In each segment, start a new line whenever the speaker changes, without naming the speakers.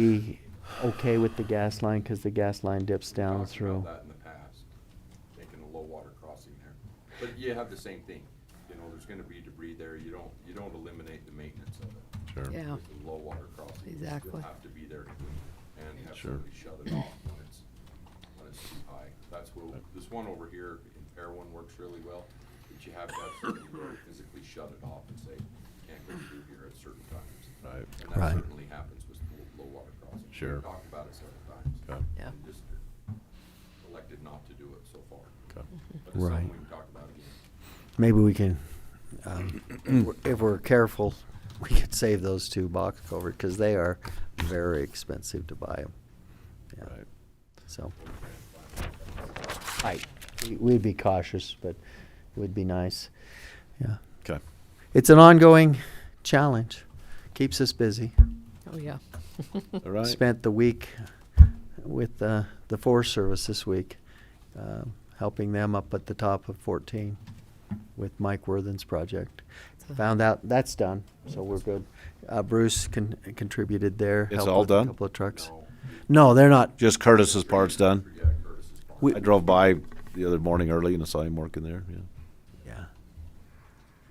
be okay with the gas line, cause the gas line dips down
talked about
through.
that in the past, making a low water crossing there. But you have the same thing, you know, there's gonna be debris there, you don't, you don't eliminate the maintenance of it.
Sure.
Yeah,
With the Low water crossing. you still
Exactly.
Have to be there to clean it and have
Sure.
somebody shut it off when it's, when it's too high. That's where, this one over here in Pear One works really well, but you have to have somebody really physically shut it off and say, "You can't go through here at certain times.
Right.
And that
Right.
certainly happens with the low water crossing. We've
Sure.
Talked about it several times
Okay.
yeah,
and just elected not to do it so far. But
Okay.
it's something
Right.
we can talk about again.
Maybe we can, um, if we're- if we're careful, we could save those two box culvert because they are very expensive to buy them.
Right.
So,
I, we- we'd be cautious, but it would be nice,
yeah.
Okay.
It's an ongoing challenge. Keeps us busy.
oh, yeah.
All right.
Spent the week with uh, the Forest Service this week, um, helping them up at the top of 14 with Mike Worthing's project.
So-
Found out that's done, so we're good. Uh, Bruce con- contributed there.
It's
helped
all
with a
done?
Couple of trucks.
No,
No, they're not.
Just Curtis's part's done.
yeah, Curtis is fine.
We-
I drove by the other morning early and saw him working there. Yeah.
Yeah.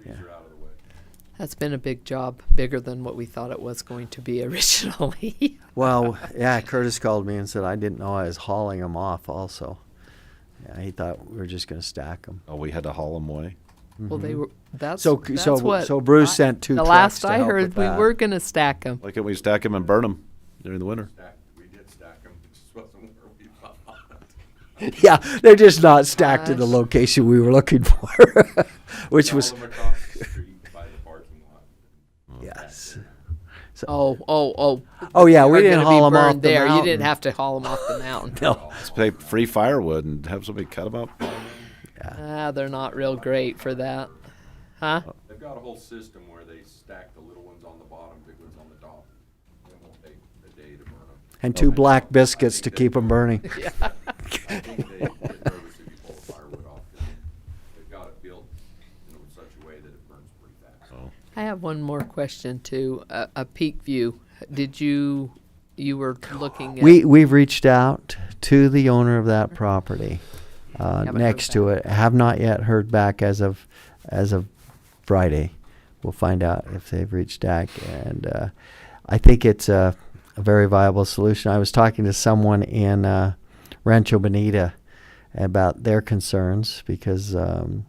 Trees are out of the way.
That's been a big job, bigger than what we thought it was going to be originally.
Well, yeah, Curtis called me and said, I didn't know I was hauling them off also. Yeah, he thought we were just gonna stack Mm-hmm. them.
Oh, we had to haul him away.
Well, they were, that's,
So c-
that's
so-
what.
so Bruce
I-
sent two
The
trucks
last
to
I
help with
heard, we
that.
were gonna stack them.
Why can't we stack him and burn him during the winter?
Stack, we did stack them, it just wasn't where we thought.
Yeah, they're just not stacked in the
Gosh.
location we were looking for, which
All
was,
of them across the street by the parking lot.
yes.
Oh, oh, oh.
Oh, yeah, we
They're
didn't
gonna
haul
be
'em off
burned
the
there. You
mountain.
didn't have to haul them off the mountain.
No,
Let's pay free firewood and have somebody cut him up.
Ah, they're not real great for that. Huh?
Oh.
They've got a whole system where they stack the little ones on the bottom, big ones on the top. It won't take a day to burn them.
and two black biscuits to keep them burning.
I think they get nervous if you pull the firewood off, 'cause they've got it built, you know, in such a way that it burns pretty fast.
Oh,
I have one more question too. A, a peak view. Did you, you were looking at?
We, we've reached out to the owner of that property, uh,
Mm-hmm. Haven't heard
next to it. Have not yet heard back as of, as of Friday. We'll find out if they've reached back and, uh, I think it's a, a very viable solution. I was talking to someone in, uh, Rancho Bonita about their concerns because, um,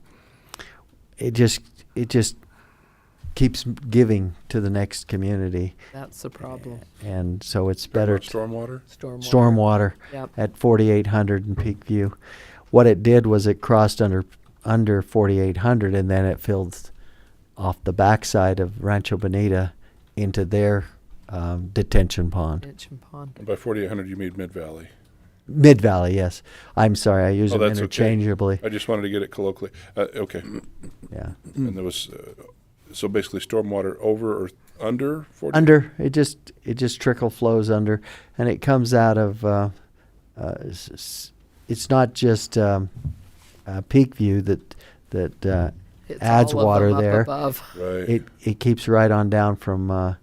it just, it just keeps giving to the next community.
That's the problem.
And so it's better. to-
Stormwater?
Stormwater.
stormwater
Yep.
at 4800 in Peak View. What it did was it crossed under under 4800 and then it filled off the backside of Rancho Bonita into their um, detention pond.
Ditch and pond.
By forty-eight hundred, you mean Mid-Valley.
Mid Valley, yes. I'm sorry, I use
Oh,
them
that's okay.
interchangeably.
I just wanted to get it colloquially. Uh, okay.
Yeah.
And there was, uh, so basically stormwater over or under forty?
Under it just it just trickle flows under, and it comes out of. Uh, uh, s- s- it's not just um, uh, Peak View that that uh,
It's
adds
all of
water
them up
there.
Above.
Right.
it it keeps right on down from uh,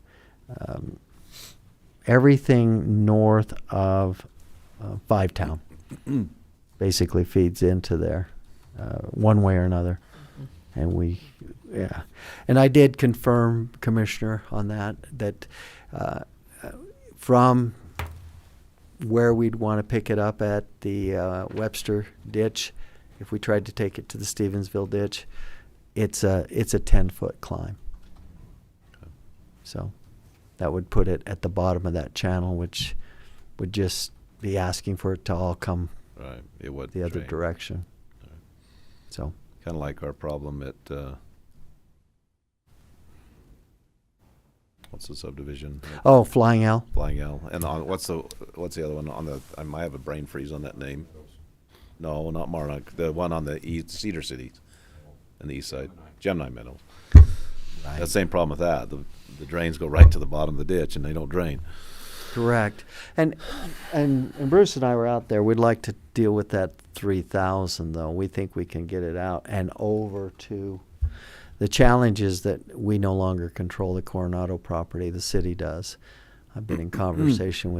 um, everything north of uh, Five Town. basically feeds into there, uh, one way or another, and we, yeah. And I did confirm, Commissioner, on that that uh, uh, from where we'd want to pick it up at the uh, Webster ditch, if we tried to take it to the Stevensville ditch, it's a it's a ten foot climb. So that would put it at the bottom of that channel, which would just be asking for it to all come
right. It would.
the other direction.
Alright.
So
Kind of like our problem at. Uh, what's the subdivision?
oh, flying L.
Flying L. And on, what's the what's the other one on the? I might have a brain freeze on that name. No, not Marnock. The one on the east, Cedar City, on the east side, Gemini Meadows. That same problem with that. The the drains go right to the bottom of the ditch and they don't drain.
Correct. And, and and Bruce and I were out there. We'd like to deal with that three thousand though. We think we can get it out and over to. The challenge is that we no longer control the Coronado property. The city does. I've been in conversation with